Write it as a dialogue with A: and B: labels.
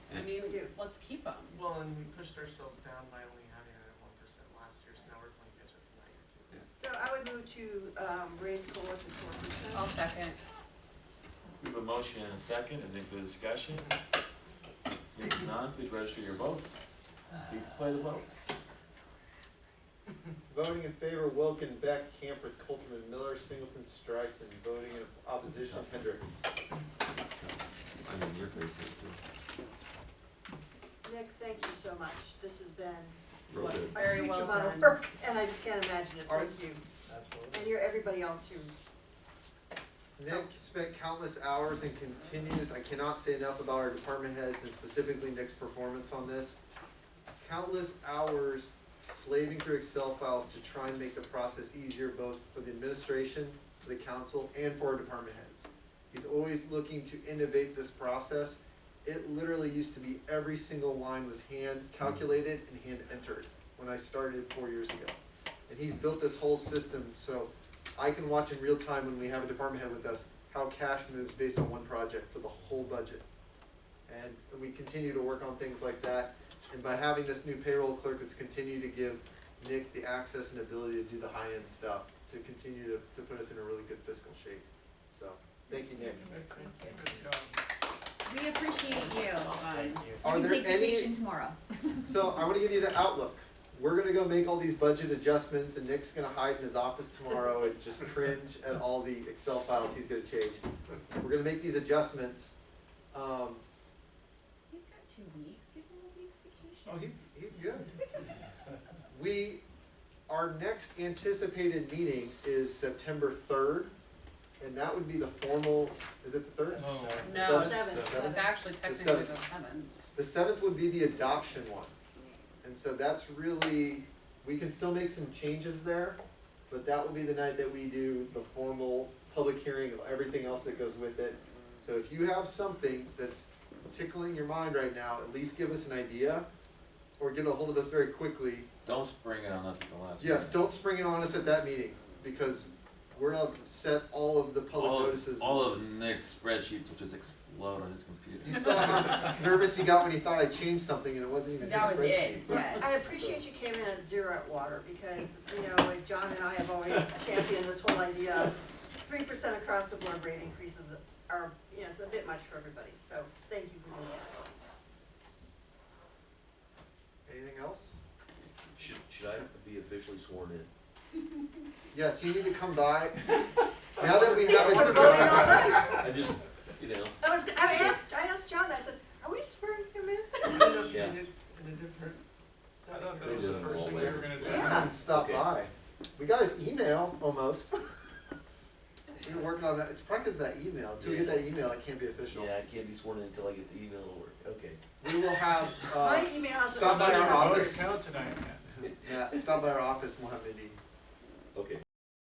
A: let's keep them.
B: Well, and we pushed ourselves down by only having it at one percent last year, so now we're playing catch up from that year too.
C: So I would move to, um, raise COLA to four
A: I'll
C: percent.
A: second.
D: We have a motion and a second, is there further discussion? Seeing none, please register your votes. Please display the votes.
E: Voting in favor, Wilken, Beck, Camper, Coltman, Miller, Singleton, Streisand. Voting in opposition, Hendricks.
F: I mean, you're crazy too.
C: Nick, thank you so much. This has been
F: Real
A: What?
F: good.
A: Very
C: a huge
A: well
C: amount of
A: done.
C: work, and I just can't imagine it. Thank you. And you're everybody else who,
E: Nick spent countless hours and continues, I cannot say enough about our department heads and specifically Nick's performance on this. Countless hours slaving through Excel files to try and make the process easier both for the administration, for the council, and for our department heads. He's always looking to innovate this process. It literally used to be every single line was hand calculated and hand entered when I started four years ago. And he's built this whole system, so I can watch in real time when we have a department head with us, how cash moves based on one project for the whole budget. And we continue to work on things like that, and by having this new payroll clerk, it's continued to give Nick the access and ability to do the high-end stuff, to continue to, to put us in a really good fiscal shape, so, thank you, Nick.
A: We appreciate you. Vaughn.
E: Are
A: You can
E: there
A: take
E: any-
A: vacation tomorrow.
E: So I wanna give you the outlook. We're gonna go make all these budget adjustments and Nick's gonna hide in his office tomorrow and just cringe at all the Excel files he's gonna change. We're gonna make these adjustments. Um,
A: He's got two weeks, give him a week's vacation.
E: oh, he's, he's good. We, our next anticipated meeting is September third, and that would be the formal, is it the third?
A: No,
C: Seven.
A: it's- it's actually technically
E: seventh.
A: the seventh.
E: The seventh would be the adoption one. And so that's really, we can still make some changes there, but that will be the night that we do the formal public hearing of everything else that goes with it. So if you have something that's tickling your mind right now, at least give us an idea or get a hold of us very quickly.
D: Don't spring it on us at the last.
E: Yes,
D: minute.
E: don't spring it on us at that meeting because we're gonna set all of the public
D: All of-
E: notices.
D: All of Nick's spreadsheets will just explode on his computer.
E: You saw how nervous he got when he thought I changed something and it wasn't even his
A: That
E: spreadsheet.
A: was it, yes.
C: I appreciate you came in at zero at water, because, you know, like John and I have always championed this whole idea of three percent across the board rate increases are, you know, it's a bit much for everybody, so thank you for doing that.
E: Anything else?
F: Should, should I be officially sworn in?
E: Yes, you need to come by. Now that we have
C: Thanks for
E: a.
C: voting all night.
F: I just, you know,
C: I was, I asked, I asked John, that. I said, are we swearing him in?
F: Yeah.
B: In a different
E: I
B: setup.
E: thought
F: that was the first thing we were
B: gonna
E: You can Stop
F: Okay.
E: by. We got his email almost. We were working on that. It's probably 'cause of that email. Till we get that email, it can't be official.
F: yeah, I can't be sworn in until I get the email to work. Okay.
E: We will have, uh,
C: My email has.
E: stop by our office.
B: Count tonight,
E: yeah, stop by our office and we'll have Mindy.
F: Okay.